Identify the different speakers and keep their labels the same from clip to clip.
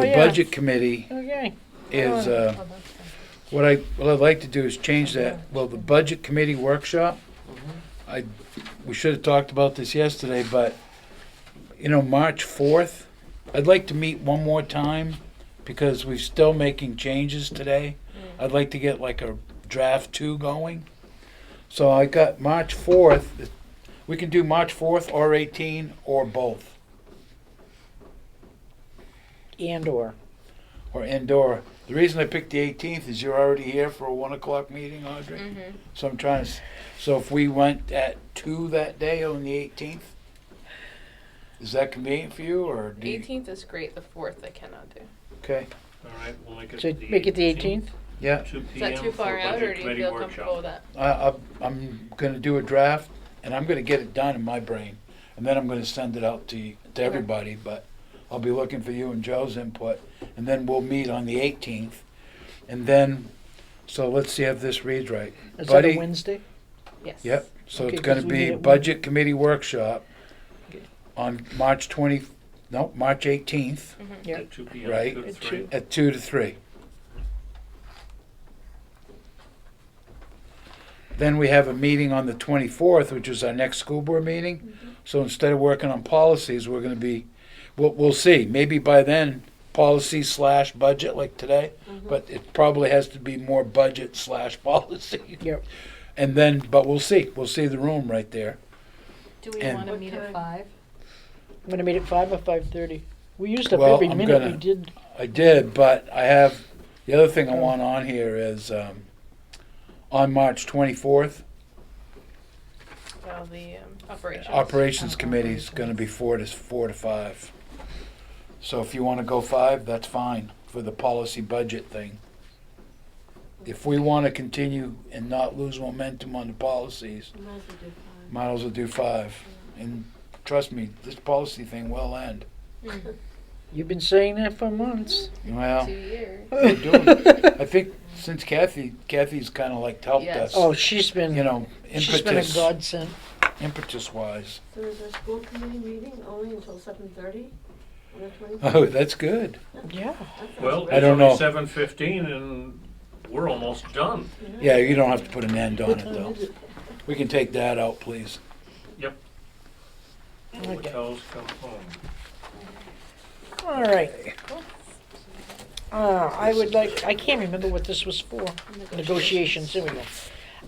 Speaker 1: The
Speaker 2: yeah.
Speaker 1: budget committee
Speaker 2: Okay.
Speaker 1: is, uh, what I, what I'd like to do is change that, well, the budget committee workshop, I, we should have talked about this yesterday, but, you know, March fourth, I'd like to meet one more time, because we're still making changes today. I'd like to get like a draft two going. So I got March fourth, we can do March fourth or eighteen, or both,
Speaker 2: And or.
Speaker 1: or indoor. The reason I picked the eighteenth is you're already here for a one o'clock meeting, Audrey.
Speaker 3: Mhm.
Speaker 1: So I'm trying to. s- So if we went at two that day on the 18th, is that convenient for you or do you,
Speaker 3: 18th is great. The 4th I cannot do.
Speaker 1: okay?
Speaker 4: All right, we'll make it
Speaker 2: So
Speaker 4: the
Speaker 2: make it the 18th?
Speaker 1: Yeah,
Speaker 4: 2
Speaker 3: Is that
Speaker 4: PM
Speaker 3: too
Speaker 4: for
Speaker 3: far out, or
Speaker 4: Budget
Speaker 3: do you
Speaker 4: Committee
Speaker 3: feel comfortable with
Speaker 4: Workshop.
Speaker 3: that?
Speaker 1: I, I, I'm going to do a draft and I'm going to get it done in my brain, and then I'm going to send it out to you, to
Speaker 3: Okay.
Speaker 1: everybody. But I'll be looking for you and Joe's input, and then we'll meet on the 18th, and then. So let's see if this reads right.
Speaker 2: Is that a
Speaker 1: Buddy?
Speaker 2: Wednesday?
Speaker 3: Yes.
Speaker 1: Yep, so
Speaker 2: Okay,
Speaker 1: it's gonna
Speaker 2: 'cause we
Speaker 1: be
Speaker 2: need it-
Speaker 1: budget committee workshop
Speaker 2: Okay.
Speaker 1: on March twenty, no, March eighteenth
Speaker 2: Yeah.
Speaker 4: At 2 PM,
Speaker 1: Right.
Speaker 4: 2 to
Speaker 2: At
Speaker 4: 3.
Speaker 2: two.
Speaker 1: at two to three. Then we have a meeting on the twenty-fourth, which is our next school board meeting.
Speaker 2: Mm-hmm.
Speaker 1: So instead of working on policies, we're gonna be, we'll, we'll see, maybe by then, policy slash budget like today.
Speaker 2: Mm-hmm.
Speaker 1: But it probably has to be more budget slash policy.
Speaker 2: Yep.
Speaker 1: And then, but we'll see, we'll see the room right there.
Speaker 3: Do we
Speaker 1: And-
Speaker 3: want to meet at 5?
Speaker 2: I'm gonna meet at five or five thirty. We used up
Speaker 1: Well,
Speaker 2: every
Speaker 1: I'm
Speaker 2: minute
Speaker 1: gonna-
Speaker 2: we did.
Speaker 1: I did, but I have, the other thing I want on here is, um, on March twenty-fourth,
Speaker 3: Well, the um, operations. Oh,
Speaker 1: Operations Committee is gonna be four to, four to five. So if you wanna go five, that's fine for the policy budget thing. If we wanna continue and not lose momentum on the policies, might as well do five. And trust me, this policy thing will end.
Speaker 3: Mm.
Speaker 2: You've been saying that for months.
Speaker 1: Well,
Speaker 3: Two years.
Speaker 1: we're doing it. I think since Kathy, Kathy's kinda like helped
Speaker 3: Yes.
Speaker 1: us,
Speaker 2: Oh, she's been,
Speaker 1: you know,
Speaker 2: she's been a
Speaker 1: impetus,
Speaker 2: godsend.
Speaker 1: impetus wise.
Speaker 5: There is a school committee meeting only until seven thirty on the twenty-fourth.
Speaker 1: Oh, that's good.
Speaker 2: Yeah.
Speaker 4: Well,
Speaker 1: I
Speaker 4: it's
Speaker 1: don't
Speaker 4: only
Speaker 1: know.
Speaker 4: 7:15 and we're almost done.
Speaker 1: Yeah, you don't have to put an end on
Speaker 2: What
Speaker 1: it,
Speaker 2: time
Speaker 1: though.
Speaker 2: is it?
Speaker 1: We can take that out, please.
Speaker 2: Okay.
Speaker 4: Hotels come home.
Speaker 2: All right. Uh, I would like, I can't remember what this was for. Negotiations, there we go.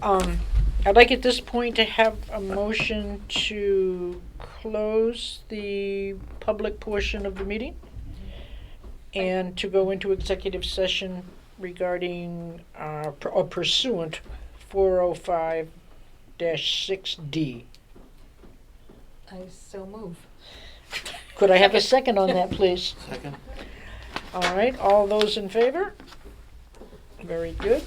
Speaker 2: Um, I'd like at this point to have a motion to close the public portion of the meeting and to go into executive session regarding, uh, pr- or pursuant four oh five dash six D.
Speaker 6: I so move.
Speaker 2: Could I have a second on that, please? Second. All right, all those in favor? Very good.